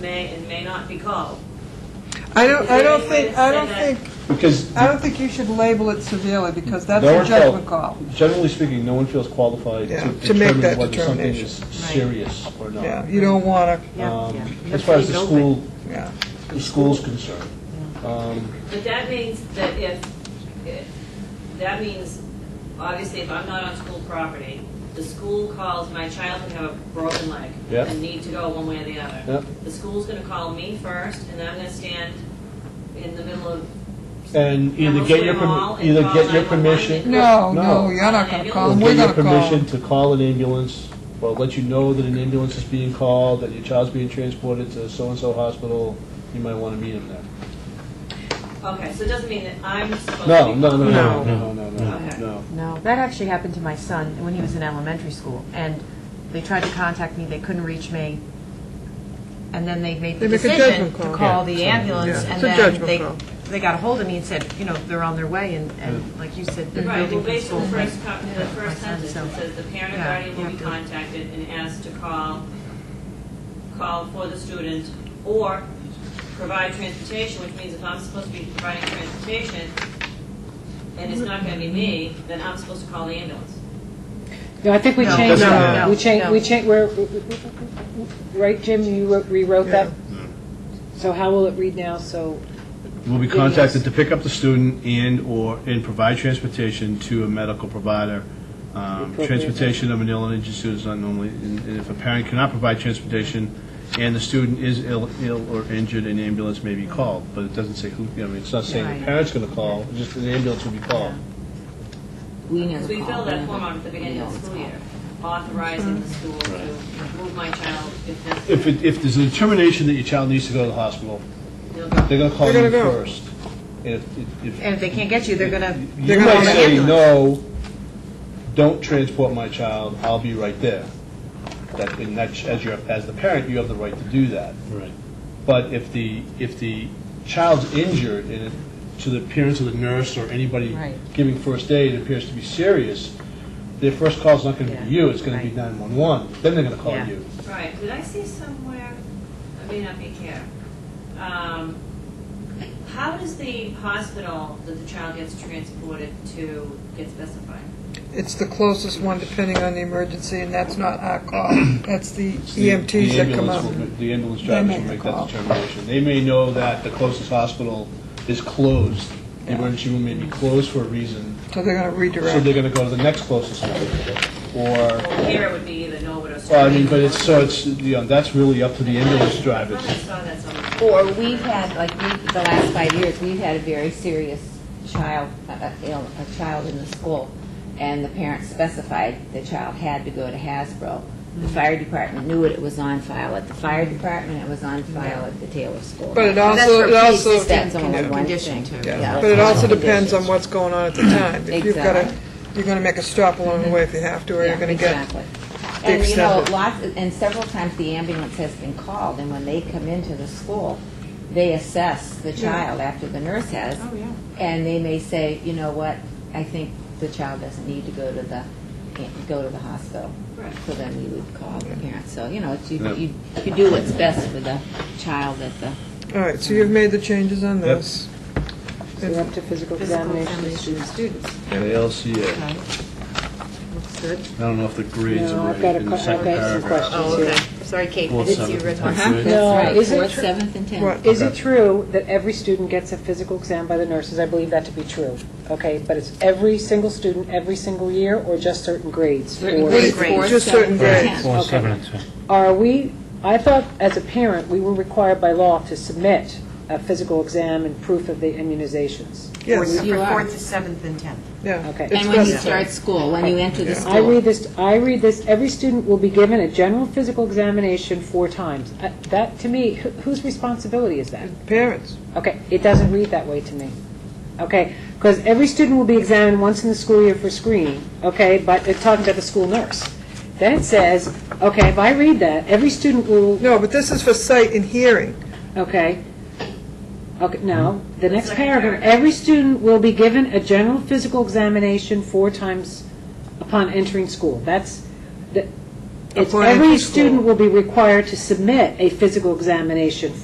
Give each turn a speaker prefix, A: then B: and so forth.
A: may and may not be called.
B: I don't, I don't think, I don't think,
C: Because
B: I don't think you should label it severely, because that's
C: No
B: a
C: one
B: judgment
C: felt-
B: call.
C: Generally speaking, no one feels qualified
B: Yeah,
C: to
B: to make
C: determine
B: that
C: whether something is
B: determination.
C: serious or not.
B: Yeah, you don't want
C: Um, As far as the school,
B: to, yeah.
C: the school's concerned. Um,
A: But that means that if, if- that means, obviously, if I'm not on school property, the school calls my child can have a broken leg
C: Yeah.
A: and need to go one way or the other.
C: Yeah.
A: The school's gonna call me first, and I'm gonna stand in the middle of
C: And either get your,
A: Hamilton Mall
C: perm-
A: and
C: either
A: call
C: get your
A: 911.
C: permission,
B: No,
C: No.
B: no, you're not gonna
C: or
B: call,
C: get
B: we're
C: your
B: gonna call.
C: permission to call an ambulance, or let you know that an ambulance is being called, that your child's being transported to so-and-so hospital, you might want to meet him there.
A: Okay, so it doesn't mean that I'm supposed to be.
C: No, no, no, no,
D: No.
C: no, no, no,
A: Okay.
C: no.
D: No, that actually happened to my son when he was in elementary school, and they tried to contact me, they couldn't reach me, and then they made the
B: They make a
D: decision
B: judgment
D: to
B: call.
D: call the ambulance,
B: Yeah.
D: and
B: It's a
D: then
B: judgment
D: they,
B: call.
D: they got a hold of me and said, you know, they're on their way, and, and like you said, they're
A: Right, well,
D: building from
A: based
D: school.
A: on the
D: but-
A: first, co- the first
D: Yeah, my son,
A: sentence,
D: so-
A: it says the parent or
D: Yeah,
A: guardian
D: you
A: will be
D: have to-
A: contacted and asked to call, call for the student or provide transportation, which means if I'm supposed to be providing transportation and it's not gonna be me, then I'm supposed to call the ambulance.
E: No, I think we
D: No,
E: changed,
B: no,
E: that.
B: no,
E: we changed,
D: no.
E: we changed, we're, right, Jim, you wrote- rewrote that?
B: Mm.
E: So how will it read now, so?
F: will be
E: Yes.
F: contacted to pick up the student and/or, and provide transportation to a medical provider. Um,
E: Appropriate.
F: Transportation of an ill and injured student is not normally, and and if a parent cannot provide transportation and the student is ill, ill or injured, an ambulance may be called, but it doesn't say who, you know, I mean, it's not saying the
D: Right.
F: parent's going to call, just an ambulance will be called.
G: We never
A: Because we
G: call
A: filled that
G: them.
A: form out at the beginning of the
G: We
A: school
G: always
A: year, authorizing the school to move my child if
F: If,
A: necessary.
F: it- if there's a determination that your child needs to go to the hospital,
A: They'll go.
F: they're going to call
B: They're
F: you
B: gonna go.
F: first. And if- if,
D: And if they can't get you, they're gonna,
F: You
B: gonna
F: might
B: want an
F: say, no, don't transport my child, I'll be right there. That, and that's, as your, as the parent, you have the right to do that.
C: Right.
F: But if the, if the child's injured, and it- to the appearance of the nurse or anybody
D: Right.
F: giving first aid appears to be serious, their first call's not gonna
D: Yeah,
F: be you, it's gonna be
D: right.
F: 911, then they're gonna call
D: Yeah.
F: you.
A: Right, did I see somewhere, I may not be here, um, how does the hospital that the child gets transported to get specified?
B: It's the closest one, depending on the emergency, and that's not our call. That's the
F: The-
B: EMTs
F: the
B: that come
F: ambulance
B: out.
F: will ma- The ambulance
B: They
F: drivers
B: make
F: will
B: the
F: make that
B: call.
F: determination. They may know that the closest hospital is closed, the
B: Yeah.
F: emergency room may be closed for a reason,
B: So they're gonna
F: So they're
B: redirect.
F: going to go to the next closest one, or,
A: Well, here it would be either Norwood or Sterling.
F: well, I mean, but it's, so it's, you know, that's really up to the ambulance
A: I thought I
F: drivers.
A: saw that somewhere.
G: call. Or we've had, like, we, the last five years, we've had a very serious child, uh, uh, ill, a child in the school, and the parents specified the child had to go to Hasbro. The
B: Mm-hmm.
G: fire department knew it, it was on file at the fire department, it was on file at the Taylor School.
B: But it
D: that's
B: also,
D: for
B: it also,
G: That's
B: yeah,
G: only one
D: condition
G: thing.
D: too.
B: but it also depends on what's going on at the time. If you've gotta,
G: Exactly.
B: you're gonna make a stop along the way if you have to, or you're
G: Yeah,
B: gonna get,
G: exactly.
B: the
G: And, you know,
B: extent of-
G: lots, and several times the ambulance has been called, and when they come into the school, they assess the child after the nurse has.
D: Oh, yeah.
G: And they may say, you know what, I think the child doesn't need to go to the, go to the hospital.
A: Right.
G: So then we would call the parents. So, you know, it's- you, you you do what's best for the child at the
B: all right, so you've made the changes on
F: Yep.
B: this.
E: We're up to physical examination of students.
F: And ALCA, I
D: Looks good.
F: don't know if the grades
E: No,
F: are
E: I've got
F: right
E: a
F: in
E: que-
F: the
E: I've
F: second
E: got some
F: paragraph.
E: questions. Oh, okay.
D: Sorry, Kate,
F: Fourth, seventh, and third.
E: No,
G: That's
E: Oh, is it
G: right, fourth,
E: tr-
G: seventh, and tenth.
B: What?
E: Is it
F: Okay.
E: true that every student gets a physical exam by the nurses? I believe that to be true, okay? But it's every single student, every single year, or just certain grades?
G: Certain
E: Or-
G: grades,
B: Grades,
G: fourth,
B: just
G: seventh,
B: certain
G: and
B: grades.
G: tenth.
E: Okay. Are we, I thought as a parent, we were required by law to submit a physical exam and proof of the immunizations.
B: Yes,
G: You are.
D: to seventh and tenth.
B: yeah.
E: Okay.
B: It's
G: And when you
B: best-
G: start school, when you enter the school.
E: I read this, I read this, every student will be given a general physical examination four times. Uh, That, to me, wh- whose responsibility is that?
B: Parents,
E: Okay, it doesn't read that way to me. Okay, because every student will be examined once in the school year for screening, okay, but it's talking about the school nurse. Then it says, okay, if I read that, every student will,
B: no, but this is for sight and hearing.
E: okay, okay, no, the
A: The
E: next
A: second
E: paragraph,
A: paragraph.
E: every student will be given a general physical examination four times upon entering school. That's, the- It's
B: According to
E: every
B: school.
E: student will be required to submit a physical examination